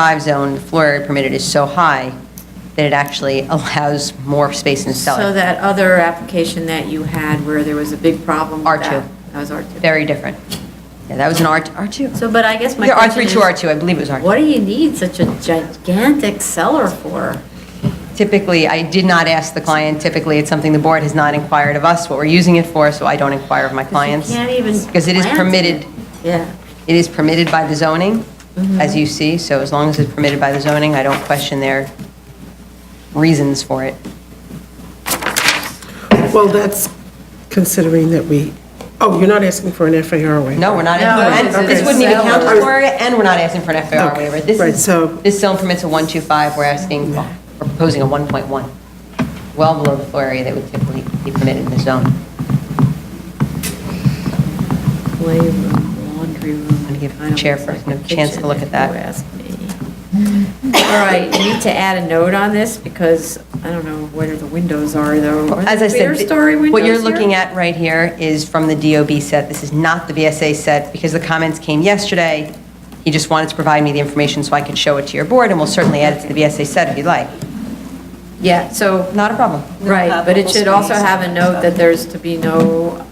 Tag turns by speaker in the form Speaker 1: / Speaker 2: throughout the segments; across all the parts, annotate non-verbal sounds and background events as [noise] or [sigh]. Speaker 1: five zone, the floor area permitted is so high that it actually [laughs] allows more space in the
Speaker 2: So
Speaker 1: cellar.
Speaker 2: that other application that you had where there was a big problem
Speaker 1: R2.
Speaker 2: with that? That was R2.
Speaker 1: Very different. Yeah, that was an R, R2.
Speaker 2: So, but I guess my
Speaker 1: Yeah,
Speaker 2: question
Speaker 1: R3
Speaker 2: is...
Speaker 1: to R2, I believe it was R2.
Speaker 2: What do you need such a gigantic cellar for?
Speaker 1: Typically, I did not ask the client, typically it's something the board has not inquired of us, what we're using it for, so I don't inquire of my clients.
Speaker 2: You can't even
Speaker 1: Because it is
Speaker 2: plant
Speaker 1: permitted,
Speaker 2: Yeah.
Speaker 1: it is permitted by the zoning,
Speaker 2: Mm-hmm.
Speaker 1: as you see, so as long as it's permitted by the zoning, I don't question their reasons for it.
Speaker 3: Well, that's considering that we, oh, you're not asking for an FAR waiver?
Speaker 1: No, we're not,
Speaker 2: No,
Speaker 1: and
Speaker 2: it's a
Speaker 1: this wouldn't even count as
Speaker 2: seller.
Speaker 1: floor area, and we're not asking for an FAR
Speaker 3: Okay,
Speaker 1: waiver. This
Speaker 3: right,
Speaker 1: is,
Speaker 3: so-
Speaker 1: this zone permits a 125, we're asking, we're proposing a 1.1, well below the floor area that would typically be permitted in the zone.
Speaker 2: Playroom, laundry room.
Speaker 1: I'm gonna give the
Speaker 2: kind of
Speaker 1: chair
Speaker 2: looks like
Speaker 1: person a chance to
Speaker 2: kitchen,
Speaker 1: look at
Speaker 2: if you
Speaker 1: that.
Speaker 2: ask me. All right, you need to add a note on this because I don't know where the windows are though. Are
Speaker 1: As
Speaker 2: there
Speaker 1: I said,
Speaker 2: clear-story
Speaker 1: th- what you're
Speaker 2: windows here?
Speaker 1: looking at right here is from the DOB set. This is not the VSA set, because the comments came yesterday. He just wanted to provide me the information so I could show it to your board, and we'll certainly add it to the VSA set if you'd like.
Speaker 2: Yeah, so,
Speaker 1: Not a problem.
Speaker 2: right, but it should also have a note that there's to be no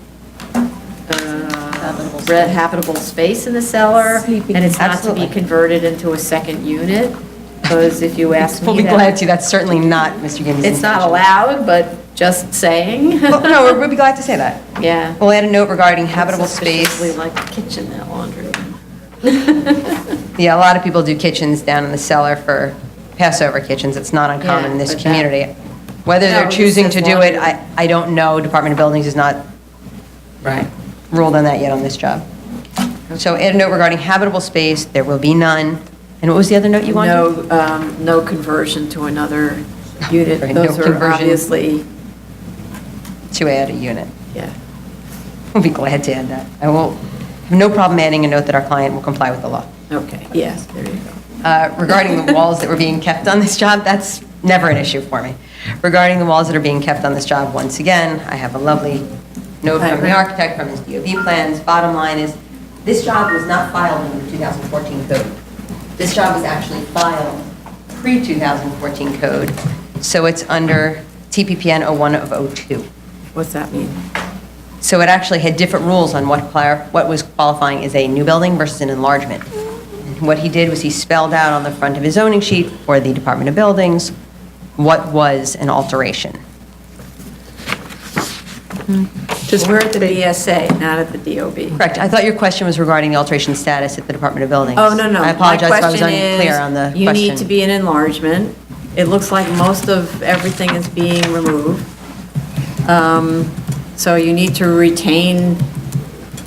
Speaker 2: uh, red habitable space in the cellar and it's not to be
Speaker 1: Absolutely.
Speaker 2: converted into a second unit because if you ask me
Speaker 1: We'll be
Speaker 2: that-
Speaker 1: glad to, that's certainly not Mr. Gibbons'
Speaker 2: It's not
Speaker 1: intention.
Speaker 2: allowed, but just saying.
Speaker 1: [laughs] Well, No, we're- we'll be glad to say that.
Speaker 2: [laughs] Yeah.
Speaker 1: We'll add a note regarding habitable
Speaker 2: Suspiciously
Speaker 1: space.
Speaker 2: like the kitchen, that laundry room.
Speaker 1: Yeah, a lot of people do kitchens down in the cellar for Passover kitchens. It's not uncommon in
Speaker 2: Yeah,
Speaker 1: this
Speaker 2: but that-
Speaker 1: community. Whether
Speaker 2: No,
Speaker 1: they're
Speaker 2: it
Speaker 1: choosing
Speaker 2: says
Speaker 1: to do it,
Speaker 2: laundry.
Speaker 1: I, I don't know. Department of Buildings has not
Speaker 2: Right.
Speaker 1: ruled on that yet on this job. So add a note regarding habitable space, there will be none. And what was the other note [laughs] you wanted?
Speaker 2: No, um, no conversion to another
Speaker 1: Right,
Speaker 2: unit.
Speaker 1: no
Speaker 2: Those are
Speaker 1: conversion.
Speaker 2: obviously,
Speaker 1: To add a unit. [laughs]
Speaker 2: yeah.
Speaker 1: We'll be glad to add that. I will, have no problem adding a note that our client will comply with the law.
Speaker 2: Okay, yes, there you go.
Speaker 1: Uh, Regarding the walls that were being kept on this job, that's never an issue for me. Regarding the walls that are being kept on this job, once again, I have a lovely note from the architect, from his DOB plans. Bottom line is, this job was not filed under the 2014 code. This job was actually filed pre-2014 code, so it's under TPPN 01 of 02.
Speaker 2: What's that mean?
Speaker 1: So it actually had different rules on what clar- what was qualifying as a new building versus an enlargement. What he did was he spelled out on the front of his zoning sheet for the Department of Buildings what was an alteration.
Speaker 3: Just-
Speaker 2: We're at the BSA, not at the DOB.
Speaker 1: Correct. I thought your question was regarding the alteration status at the Department of Buildings.
Speaker 2: Oh, no, no.
Speaker 1: I
Speaker 2: My
Speaker 1: apologize if I was
Speaker 2: question is,
Speaker 1: unclear on the question.
Speaker 2: You need to be an enlargement. It looks like most of everything is being removed. Um, So you need to retain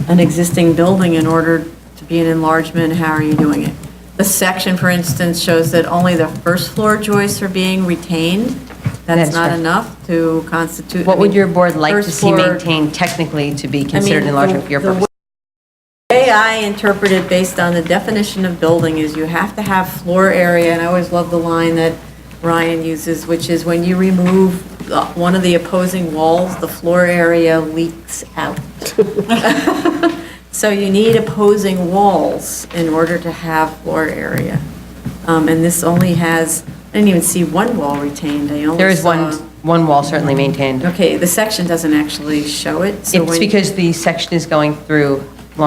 Speaker 2: an existing building in order to be an enlargement. How are you doing it? The section, for instance, shows that only the first floor joists are being retained.
Speaker 1: That
Speaker 2: That's
Speaker 1: is
Speaker 2: not
Speaker 1: correct.
Speaker 2: enough to constitute.
Speaker 1: What
Speaker 2: I
Speaker 1: would
Speaker 2: mean,
Speaker 1: your board like to
Speaker 2: first
Speaker 1: see
Speaker 2: floor-
Speaker 1: maintained technically to be
Speaker 2: I mean,
Speaker 1: considered an enlargement
Speaker 2: the-
Speaker 1: for your
Speaker 2: the
Speaker 1: purpose?
Speaker 2: way I interpret it based on the definition of building is you have to have floor area, and I always love the line that Ryan uses, which is when you remove the- one of the opposing walls, the floor area leaks
Speaker 1: [laughs]
Speaker 2: out. So you need opposing walls in order to have floor area. Um, And this only has, I didn't even see one wall retained, I only saw.
Speaker 1: There is one, one wall certainly maintained.
Speaker 2: Okay, the section doesn't actually show it, so when.
Speaker 1: It's because the section is going through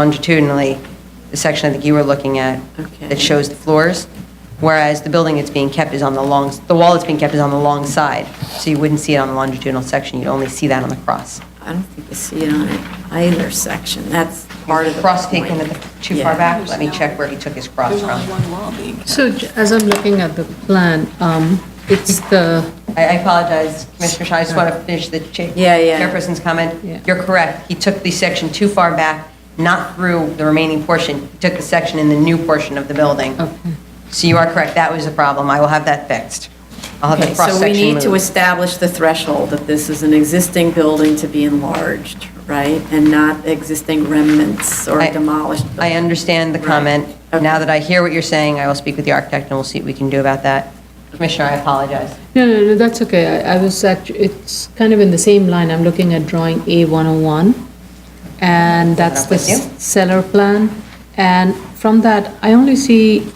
Speaker 1: longitudinally, the section I think you were looking at,
Speaker 2: Okay.
Speaker 1: that shows the floors, whereas the building that's being kept is on the long, the wall that's being kept is on the long side, so you wouldn't see it on the longitudinal section, you'd only see that on the cross.
Speaker 2: I don't think you see it on it either section, that's part of the
Speaker 1: Cross
Speaker 2: point.
Speaker 1: taken at the- too far
Speaker 2: Yeah.
Speaker 1: back, let me check where he took his cross from.
Speaker 4: So j- as I'm looking at the plan, um, it's the,
Speaker 1: I I apologize, Commissioner Shaw, I just want to finish the cha-
Speaker 2: Yeah, yeah.
Speaker 1: chairperson's
Speaker 4: Yeah.
Speaker 1: comment. You're correct, he took the section too far back, not through the remaining portion, he took the section in the new portion of the building.
Speaker 4: Okay.
Speaker 1: So you are correct, that was a problem, I will have that fixed. I'll have
Speaker 2: Okay,
Speaker 1: the
Speaker 2: so we
Speaker 1: cross-section
Speaker 2: need to
Speaker 1: moved.
Speaker 2: establish the threshold that this is an existing building to be enlarged, right? And not existing remnants or
Speaker 1: I-
Speaker 2: demolished.
Speaker 1: I understand the
Speaker 2: Right.
Speaker 1: comment. Now
Speaker 2: Okay.
Speaker 1: that I hear what you're saying, I will speak with the architect and we'll see what we can do about that. Commissioner, I apoloze.
Speaker 4: no, no, no, that's okay. I I was actually, it's kind of in the same line. I'm looking at drawing A101, and that's
Speaker 1: up
Speaker 4: the
Speaker 1: with you.
Speaker 4: s- cellar plan. And from that, I only see